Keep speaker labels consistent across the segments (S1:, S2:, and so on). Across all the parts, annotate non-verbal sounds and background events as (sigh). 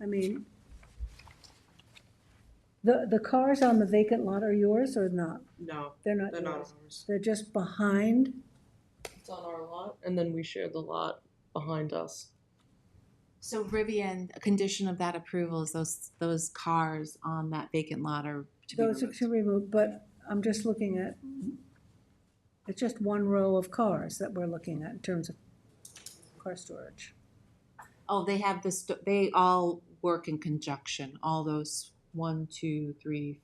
S1: I mean, the, the cars on the vacant lot are yours or not?
S2: No,
S1: They're not
S2: they're not
S1: yours.
S2: ours.
S1: They're just behind?
S2: It's on our lot, and then we share the lot behind us.
S3: So Rivian, a condition of that approval is those, those cars on that vacant lot are to be
S1: Those are
S3: removed.
S1: to remove, but I'm just looking at, it's just one row of cars that we're looking at in terms of car storage.
S3: Oh, they have this, they all work in conjunction, all those one, two, three,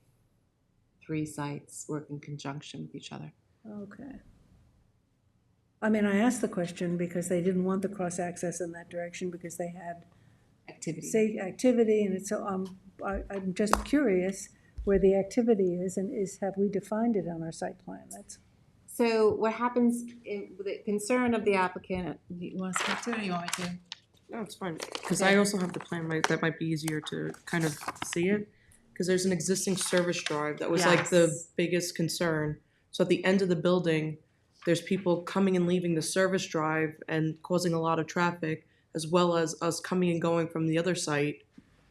S3: three sites work in conjunction with each other.
S1: Okay. I mean, I asked the question because they didn't want the cross-access in that direction because they had
S3: Activity.
S1: say activity, and it's, so, um, I, I'm just curious where the activity is, and is, have we defined it on our site plan? That's,
S3: So what happens, in- with the concern of the applicant, you want to speak to it or you want me to?
S2: No, it's fine, because I also have the plan, right, that might be easier to kind of see it. Because there's an existing service drive that was like the
S3: Yes.
S2: biggest concern. So at the end of the building, there's people coming and leaving the service drive and causing a lot of traffic, as well as us coming and going from the other site.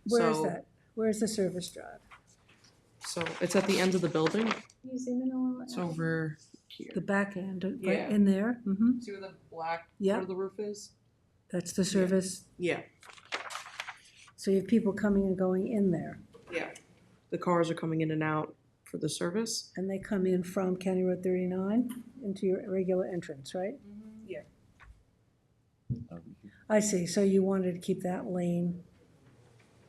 S1: where is
S2: So-
S1: that? Where is the service drive?
S2: So it's at the end of the building,
S3: You zoom in a little.
S2: it's over here.
S1: The back end, uh, right
S2: Yeah.
S1: in there? Mm-hmm.
S2: See where the black
S1: Yeah.
S2: part of the roof is?
S1: That's the service,
S2: Yeah,
S1: so you have people coming and going in there,
S2: yeah. The cars are coming in and out for the service.
S1: and they come in from County Road thirty-nine into your regular entrance, right?
S2: Yeah.
S1: I see, so you wanted to keep that lane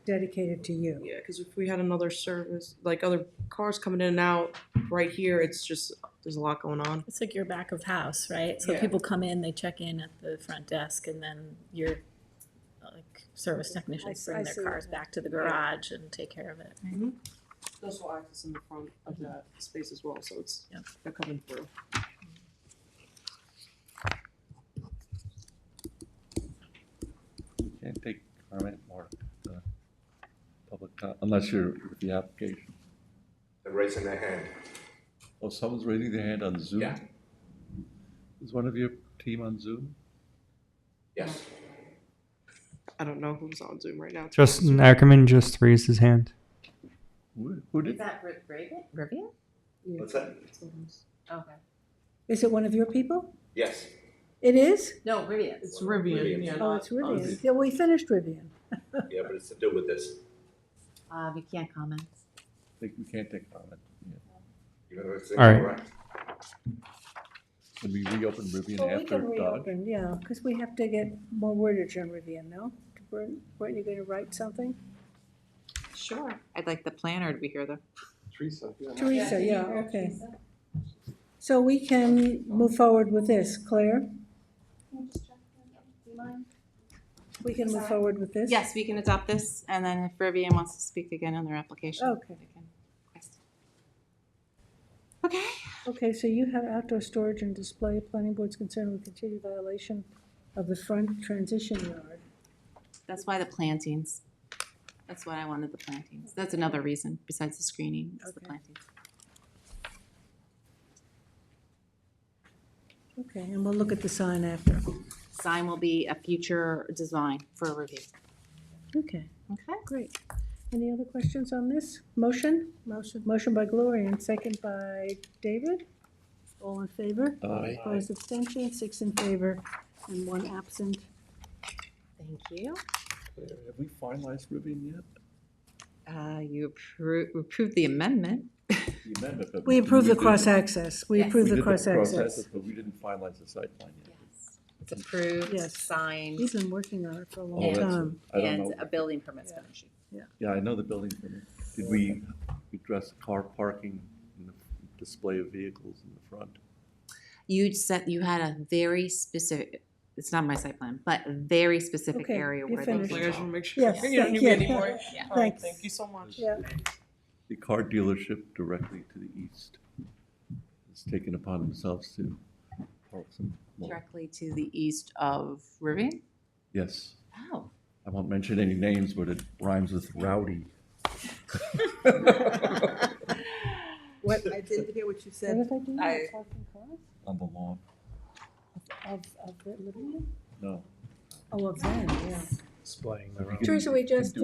S1: dedicated to you?
S2: Yeah, because if we had another service, like other cars coming in and out right here, it's just, there's a lot going on.
S4: It's like your back of house, right? So
S2: Yeah.
S4: people come in, they check in at the front desk, and then your like service technicians
S1: I
S4: bring
S1: see
S4: their
S1: what
S4: cars
S1: you-
S4: back to the garage and take care of it.
S2: There's no access in the front of that space as well, so it's,
S4: Yeah.
S2: they're coming through.
S5: Can't take comment or uh, public, co- unless you're with the application.
S6: They're raising their hand.
S5: Oh, someone's raising their hand on Zoom?
S6: Yeah.
S5: Is one of your team on Zoom?
S6: Yes.
S2: I don't know who's on Zoom right now.
S7: Justin Ackerman just raised his hand.
S5: Who who did?
S3: that Rivian? Rivian?
S2: Yeah.
S6: What's that?
S3: Okay.
S1: Is it one of your people?
S6: Yes.
S1: It is?
S3: No, Rivian.
S2: It's Rivian,
S6: Rivian.
S2: yeah.
S1: Oh, it's
S2: not on
S1: Rivian.
S2: Zoom.
S1: Yeah, we finished Rivian.
S6: Yeah, but it's to do with this.
S3: Uh, we can't comment.
S5: Like, We can't take comment. Yeah.
S6: You know, it's
S7: All right.
S6: incorrect.
S5: Can we reopen
S1: Well,
S5: Rivian
S1: we
S5: after
S1: can
S5: Dodge?
S1: reopen, yeah, because we have to get more wordage on Rivian, no? Weren't weren't you gonna write something?
S3: Sure. I'd like the planner to be here though.
S1: Teresa, yeah, okay. So we can move forward with this, Claire? We can move forward with this?
S3: Yes, we can adopt this, and then if Rivian wants to speak again on their application.
S1: Okay.
S3: they can request it. Okay.
S1: Okay, so you have outdoor storage and display, planning board's concerned with continued violation of the front transition yard.
S3: That's why the plantings. That's why I wanted the plantings. That's another reason besides the screening, is the
S1: Okay.
S3: plantings.
S1: Okay, and we'll look at the sign after.
S3: Sign will be a future design for review.
S1: Okay.
S3: Okay.
S1: Great. Any other questions on this? Motion? Motion. Motion by Gloria and second by David. All in favor?
S5: Aye.
S1: Opposed, abstention, six in favor and one absent.
S3: Thank you.
S5: Claire, Have we finalized Rivian yet?
S3: Uh, you approved, approved the amendment.
S5: The amendment, but
S1: We approve the
S5: did-
S1: cross-access. We
S3: Yes.
S1: approve
S5: we
S1: the
S5: did
S1: cross-access.
S5: But we didn't finalize the site plan yet.
S3: Yes. It's approved,
S1: Yes.
S3: signed,
S1: We've been working on it for a
S5: Oh,
S1: long
S5: that's it.
S1: time.
S5: I don't
S3: and
S5: know.
S1: uh,
S3: a building permit's been issued.
S5: Yeah, I know the building. permit. Did we address car parking and the display of vehicles in the front?
S3: You said you had a very specific, it's not my site plan, but a very specific
S1: Okay,
S3: area
S1: you're
S3: where they
S1: finished.
S2: Like, I
S3: can
S2: just wanna
S3: go.
S2: make sure.
S1: Yes,
S2: (laughs) You don't need
S1: yeah, yeah.
S2: me anymore.
S3: Yeah.
S2: All right,
S1: Thanks.
S2: Thank you so much.
S1: Yeah.
S5: the car dealership directly to the east has taken upon themselves to park some more.
S3: Directly to the east of Rivian?
S5: Yes,
S3: Oh,
S5: I won't mention any names, but it rhymes with rowdy.
S8: What, I didn't hear what you
S1: What
S8: said.
S1: if I do
S8: I-
S1: the parking cars
S5: On the lawn,
S1: of, of the living room?
S5: no.
S1: Oh, of them, yeah.
S9: displaying their own.
S1: Teresa, we
S5: You can
S1: just,
S5: do